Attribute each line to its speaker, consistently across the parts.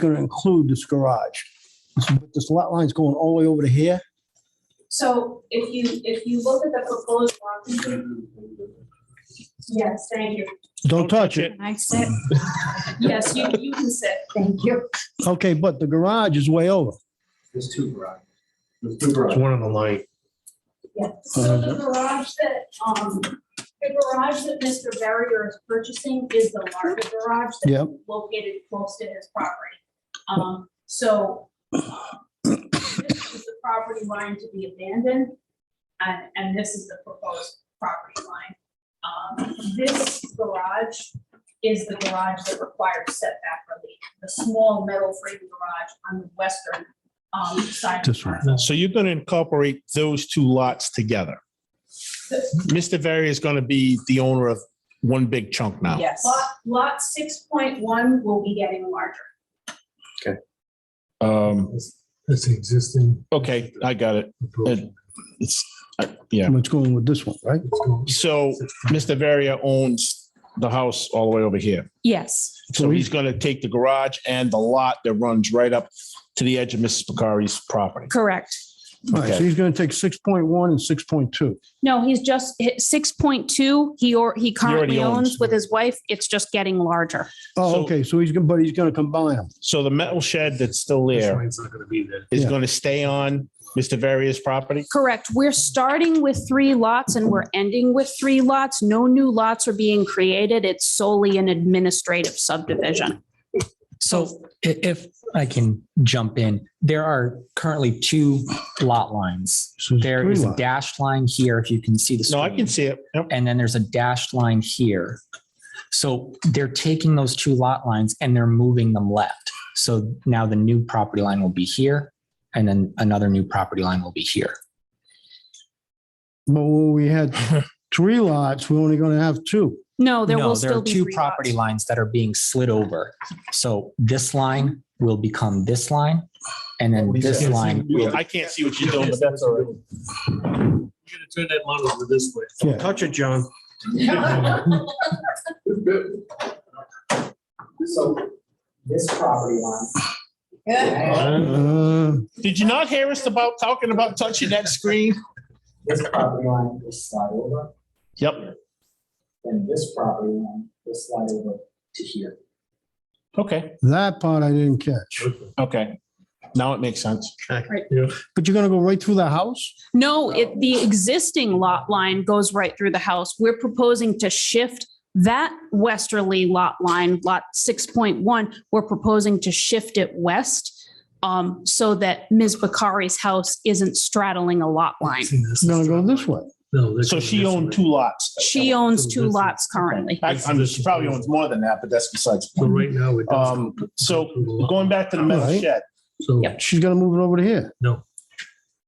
Speaker 1: going to include this garage. So, but This lot line's going all the way over to here.
Speaker 2: So if you, if you look at the proposed lot. Yes, thank you.
Speaker 1: Don't touch it.
Speaker 2: I sit. Yes, you, you can sit. Thank you.
Speaker 1: Okay, but the garage is way over.
Speaker 3: There's two garages. There's two garages.
Speaker 4: There's one on the light.
Speaker 2: So the garage that, um, the garage that Mr. Barrier is purchasing is the larger garage
Speaker 1: Yep.
Speaker 2: that's located close to his property. Um, so this is the property line to be abandoned, and, and this is the proposed property line. Um, this garage is the garage that requires setback relief, the small metal frame garage on the western, um, side. of the
Speaker 1: This one.
Speaker 2: property.
Speaker 4: So you're going to incorporate those two lots together. Mr. Very is going to be the owner of one big chunk now.
Speaker 5: Yes.
Speaker 2: Lot, lot six point one will be getting larger.
Speaker 4: Um,
Speaker 3: That's the existing.
Speaker 4: okay, I got it. It- It's, I- yeah.
Speaker 1: It's going with this one, right?
Speaker 4: So Mr. Varia owns the house all the way over here.
Speaker 5: Yes.
Speaker 4: So he's going to take the garage and the lot that runs right up to the edge of Mrs. Bakari's property.
Speaker 5: Correct.
Speaker 1: All right, so
Speaker 4: Okay.
Speaker 1: he's going to take 6.1 and 6.2.
Speaker 5: No, he's just six point two. He or he
Speaker 4: already
Speaker 5: currently
Speaker 4: owns.
Speaker 5: owns with his wife. It's just getting larger.
Speaker 1: Oh,
Speaker 4: So-
Speaker 1: okay, so he's going, but he's going to combine them.
Speaker 4: So the metal shed that's still
Speaker 3: This
Speaker 4: there
Speaker 3: line's not gonna be there.
Speaker 4: is
Speaker 1: Yeah.
Speaker 4: going to stay on Mr. Varia's property?
Speaker 5: Correct. We're starting with three lots and we're ending with three lots. No new lots are being created. It's solely an administrative subdivision.
Speaker 6: So i- if I can jump in, there are currently two lot lines.
Speaker 1: So it's
Speaker 6: There
Speaker 1: three
Speaker 6: is a
Speaker 1: lots.
Speaker 6: dashed line here, if you can see the
Speaker 4: No, I can
Speaker 6: screen.
Speaker 4: see it. Yep.
Speaker 6: And then there's a dashed line here. So they're taking those two lot lines and they're moving them left. So now the new property line will be here and then another new property line will be here.
Speaker 1: But when we had three lots, we're only going to have two.
Speaker 5: No, there
Speaker 6: No,
Speaker 5: will
Speaker 6: there
Speaker 5: still
Speaker 6: are
Speaker 5: be
Speaker 6: two
Speaker 5: three
Speaker 6: property
Speaker 5: lots.
Speaker 6: lines that are being slid over. So this line will become this line and then this line will
Speaker 4: I can't see what you're doing, but that's
Speaker 3: all right. You're gonna turn that model over this way.
Speaker 1: Yeah,
Speaker 4: Touch it, John.
Speaker 7: So this property line.
Speaker 1: Uh,
Speaker 4: Did you not hear us about talking about touching that screen?
Speaker 7: This property line will slide over,
Speaker 4: Yep.
Speaker 7: then this property line will slide over to here.
Speaker 4: Okay.
Speaker 1: that part I didn't catch.
Speaker 4: Okay. Now it makes sense.
Speaker 1: But you're going to go right through the house?
Speaker 5: No, it, the existing lot line goes right through the house. We're proposing to shift that westerly lot line, lot six point one, we're proposing to shift it west um, so that Ms. Bakari's house isn't straddling a lot line.
Speaker 3: See, this is-
Speaker 1: You're going to go this way?
Speaker 3: No, they're
Speaker 4: So
Speaker 3: going
Speaker 4: she
Speaker 3: this
Speaker 4: owned
Speaker 3: way.
Speaker 4: two lots.
Speaker 5: She owns two lots currently.
Speaker 4: I- I'm- She probably owns more than that, but that's besides. the
Speaker 3: So
Speaker 4: point.
Speaker 3: right now it does.
Speaker 4: Um, so going back to the metal
Speaker 1: Right.
Speaker 4: shed,
Speaker 3: So
Speaker 1: She's going to move it over to here.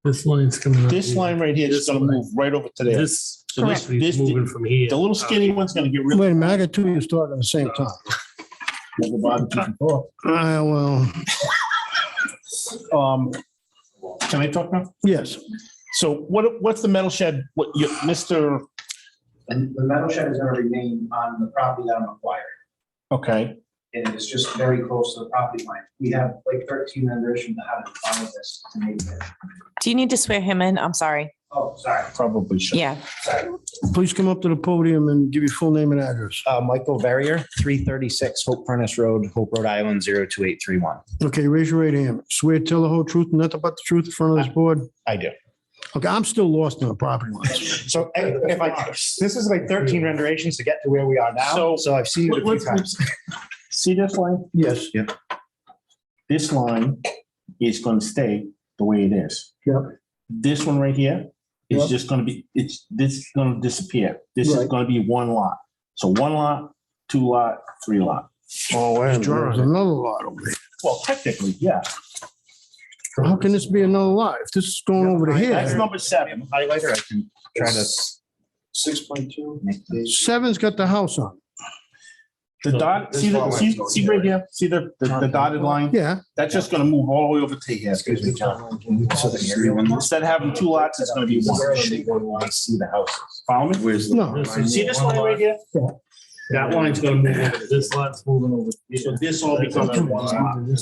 Speaker 3: this line's coming. up
Speaker 4: this
Speaker 3: here.
Speaker 4: line right here is gonna move right over to there.
Speaker 3: This, so this
Speaker 4: Correct.
Speaker 3: is moving from here.
Speaker 4: The little skinny one's gonna get rid
Speaker 1: Wait a minute, I got two of you starting at the same time.
Speaker 4: of
Speaker 1: Uh, well,
Speaker 4: it. Um, can I talk now?
Speaker 1: yes,
Speaker 4: So what, what's the metal shed, what, you, Mr.,
Speaker 7: And the metal shed is gonna remain on the property that I'm acquiring.
Speaker 4: okay,
Speaker 7: And it's just very close to the property line. We have like thirteen rendition to how to follow this to make it.
Speaker 8: Do you need to swear him in? I'm sorry.
Speaker 7: Oh, sorry,
Speaker 4: probably should.
Speaker 8: Yeah.
Speaker 7: sorry.
Speaker 1: please come up to the podium and give your full name and address.
Speaker 9: Uh, Michael Verrier, three thirty-six Hope Furnace Road, Hope, Rhode Island, 02831.
Speaker 1: Okay, raise your right hand. Swear to tell the whole truth, and nothing but the truth in front of this board.
Speaker 9: I do.
Speaker 1: Okay, I'm still lost in the property lines.
Speaker 9: So eh, if I, this is like thirteen renderations to get to where we are
Speaker 4: So-
Speaker 9: now, so I've seen it a few
Speaker 4: Let's-
Speaker 9: times.
Speaker 4: See this line?
Speaker 1: Yes,
Speaker 4: This line is gonna stay the way it is.
Speaker 1: Yep.
Speaker 4: This one right here is
Speaker 1: Yep.
Speaker 4: just gonna be, it's, this is gonna disappear. This is
Speaker 1: Right.
Speaker 4: gonna be one lot. So one lot, two lot, three lot.
Speaker 3: Oh,
Speaker 1: there's another lot over there.
Speaker 4: Well, technically, yeah.
Speaker 1: How can this be another lot? If this is going over to
Speaker 4: That's
Speaker 1: here,
Speaker 4: number seven.
Speaker 9: Highlighter, I can try to.
Speaker 7: Six point two.
Speaker 1: seven's got the house on.
Speaker 4: The dot, see the, see, see right here, see the, the the dotted line?
Speaker 1: Yeah,
Speaker 4: That's just gonna move all the way over to here.
Speaker 9: Excuse me, John. Can you show the area on this?
Speaker 4: Instead of having two lots, it's gonna be one.
Speaker 9: I see the houses.
Speaker 4: Follow me?
Speaker 9: Where's?
Speaker 1: no,
Speaker 3: This is-
Speaker 4: See this line right here?
Speaker 3: That line's gonna move over. This line's moving over.
Speaker 4: Oh, So this all becomes one lot.